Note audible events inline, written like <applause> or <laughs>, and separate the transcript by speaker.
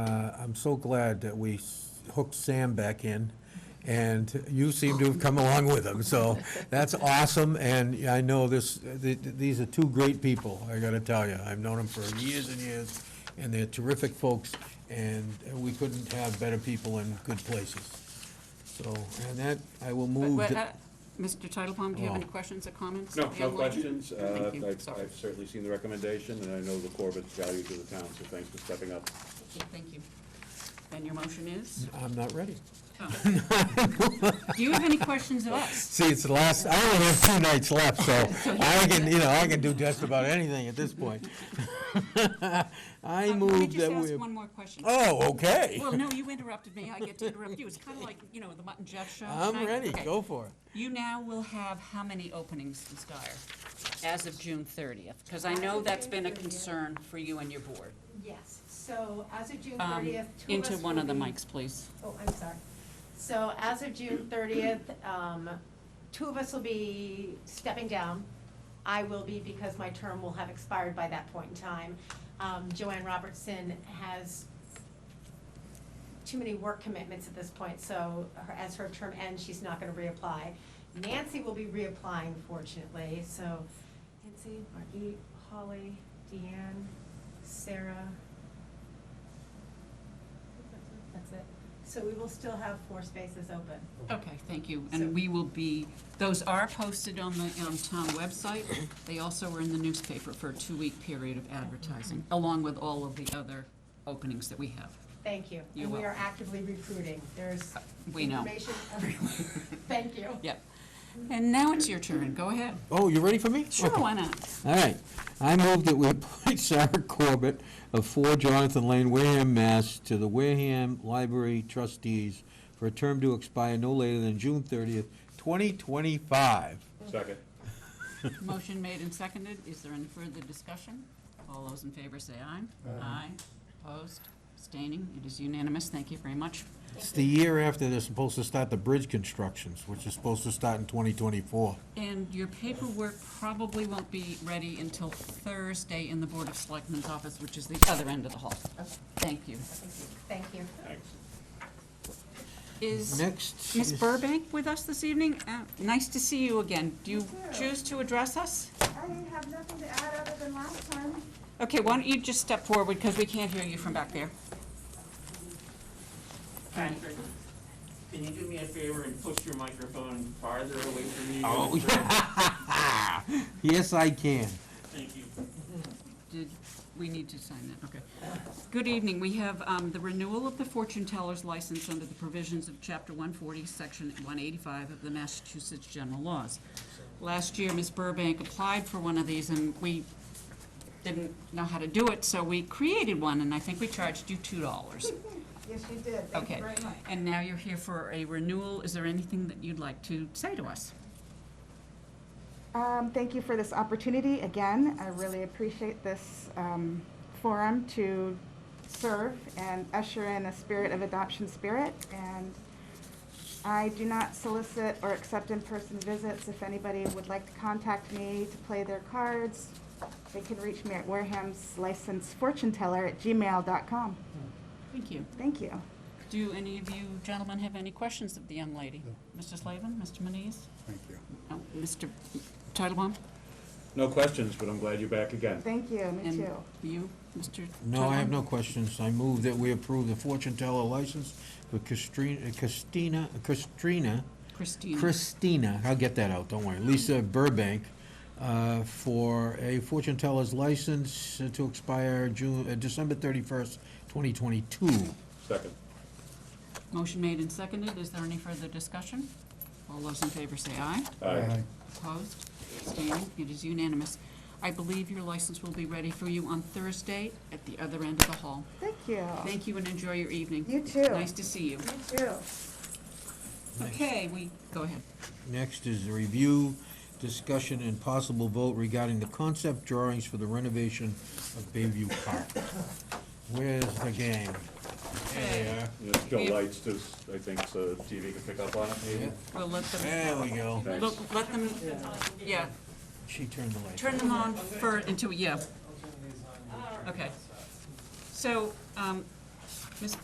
Speaker 1: uh, I'm so glad that we hooked Sam back in, and you seem to have come along with him, so that's awesome, and I know this, th- th- these are two great people, I gotta tell you. I've known them for years and years, and they're terrific folks, and we couldn't have better people in good places. So, and that, I will
Speaker 2: But-
Speaker 1: move.
Speaker 2: but,
Speaker 1: to-
Speaker 2: uh, Mr. Titlebaum, do you have any
Speaker 1: Oh.
Speaker 2: questions or comments?
Speaker 3: No, no
Speaker 2: Hamline?
Speaker 3: questions. Uh,
Speaker 2: Thank you,
Speaker 3: I've
Speaker 2: sorry.
Speaker 3: I've certainly seen the recommendation, and I know the Corbett's value to the town, so thanks for stepping up.
Speaker 2: Okay, Thank you. And your motion is?
Speaker 1: I'm not ready.
Speaker 2: Oh. Do you have any questions
Speaker 1: <laughs>
Speaker 2: of us?
Speaker 1: See, it's the last, I only have two nights left, so I can, you know, I can do just about anything at this point. <laughs> I
Speaker 2: Um,
Speaker 1: move that
Speaker 2: Let me just
Speaker 1: we.
Speaker 2: ask one more question.
Speaker 1: Oh, okay.
Speaker 2: Well, no, you interrupted me, I get to interrupt you. It's kind of like, you know, the Mutt and Jeff show.
Speaker 1: I'm
Speaker 2: tonight.
Speaker 1: ready,
Speaker 2: Okay.
Speaker 1: go for it.
Speaker 2: You now will have how many openings, Ms. Dyer, as of June thirtieth? Because I know that's been a concern for you and your board.
Speaker 4: Yes, so as of June
Speaker 2: Um,
Speaker 4: thirtieth, two of us
Speaker 2: Into one
Speaker 4: will
Speaker 2: of the
Speaker 4: be-
Speaker 2: mics, please.
Speaker 4: Oh, I'm sorry. So as of June thirtieth, um, two of us will be stepping down. I will be because my term will have expired by that point in time. Um, Joanne Robertson has too many work commitments at this point, so her, as her term ends, she's not gonna reapply. Nancy will be reapplying fortunately, so Nancy, Margie, Holly, Deanne, Sarah. That's it. So we will still have four spaces open.
Speaker 2: Okay, thank you.
Speaker 4: So-
Speaker 2: And we will be, those are posted on the um, town website. They also were in the newspaper for a two-week period of advertising, along with all of the other openings that we have.
Speaker 4: Thank you.
Speaker 2: You're
Speaker 4: And we are
Speaker 2: welcome.
Speaker 4: actively recruiting. There's
Speaker 2: We know.
Speaker 4: information
Speaker 2: <laughs>
Speaker 4: everywhere. Thank you.
Speaker 2: Yep. And now it's your turn. Go ahead.
Speaker 1: Oh, you ready for me?
Speaker 2: Sure,
Speaker 1: Okay.
Speaker 2: why not?
Speaker 1: All right. I move that we appoint <laughs> Sarah Corbett of 4 Jonathan Lane, Wareham, Mass. to the Wareham Library Trustees for a term to expire no later than June 30th, 2025.
Speaker 3: Second.
Speaker 2: Motion made and seconded. Is there any further discussion? All those in favor say aye. Aye. Opposed, abstaining. It is unanimous. Thank you very much.
Speaker 1: It's the year after they're supposed to start the bridge constructions, which is supposed to start in 2024.
Speaker 2: And your paperwork probably won't be ready until Thursday in the Board of Selectmen's office, which is the other end of the hall. Thank you.
Speaker 4: Thank you.
Speaker 3: Thanks.
Speaker 2: Is
Speaker 1: Next.
Speaker 2: Ms.
Speaker 1: is-
Speaker 2: Burbank with us this evening? Uh, Nice to see you again. Do you choose to address us?
Speaker 5: I have nothing to add other than last time.
Speaker 2: Okay, why don't you just step forward, because we can't hear you from back there.
Speaker 6: Patrick, can you do me a favor and push your microphone farther away from you?
Speaker 1: Oh, yeah. <laughs> Yes, I can.
Speaker 6: Thank you.
Speaker 2: Did, we need to sign that, okay. Good evening, we have um, the renewal of the fortune teller's license under the provisions of Chapter 140, Section 185 of the Massachusetts General Laws. Last year, Ms. Burbank applied for one of these, and we didn't know how to do it, so we created one, and I think we charged you $2.
Speaker 5: <laughs> Yes, you did. Thank you
Speaker 2: Okay,
Speaker 5: very much.
Speaker 2: and now you're here for a renewal. Is there anything that you'd like to say to us?
Speaker 5: Um, thank you for this opportunity again. I really appreciate this, um, forum to serve and usher in a spirit of adoption spirit. And I do not solicit or accept in-person visits. If anybody would like to contact me to play their cards, they can reach me at Wareham's licensed fortune teller at gmail.com.
Speaker 2: Thank you.
Speaker 5: Thank you.
Speaker 2: Do any of you gentlemen have any questions of the young lady? Mr. Slavin, Mr. Manise?
Speaker 7: Thank you.
Speaker 2: Oh, Mr. Titlebaum?
Speaker 3: No questions, but I'm glad you're back again.
Speaker 5: Thank you, me
Speaker 2: And
Speaker 5: too.
Speaker 2: you, Mr.
Speaker 1: No, I have
Speaker 2: Titlebaum?
Speaker 1: no questions. I move that we approve the fortune teller license for Christina, Christina, Christina,
Speaker 2: Christine.
Speaker 1: Christina, I'll get that out, don't worry, Lisa Burbank, uh, for a fortune teller's license to expire June, uh, December 31st, 2022.
Speaker 3: Second.
Speaker 2: Motion made and seconded. Is there any further discussion? All those in favor say aye.
Speaker 3: Aye.
Speaker 2: Opposed? Abstaining? It is unanimous. I believe your license will be ready for you on Thursday at the other end of the hall.
Speaker 5: Thank you.
Speaker 2: Thank you and enjoy your evening.
Speaker 5: You too.
Speaker 2: Nice to see you.
Speaker 5: You too.
Speaker 2: Okay, we, go ahead.
Speaker 1: Next is the review, discussion, and possible vote regarding the concept drawings for the renovation of Bayview Park. Where's the game? There
Speaker 3: There's no
Speaker 2: We-
Speaker 3: lights, there's, I think, so TV can pick up on it
Speaker 1: they are.
Speaker 3: maybe.
Speaker 2: We'll let them,
Speaker 1: There we go.
Speaker 3: Thanks.
Speaker 2: look, let them, yeah,
Speaker 1: She turned the light.
Speaker 2: turn them on for, into, yeah. Okay. So, um,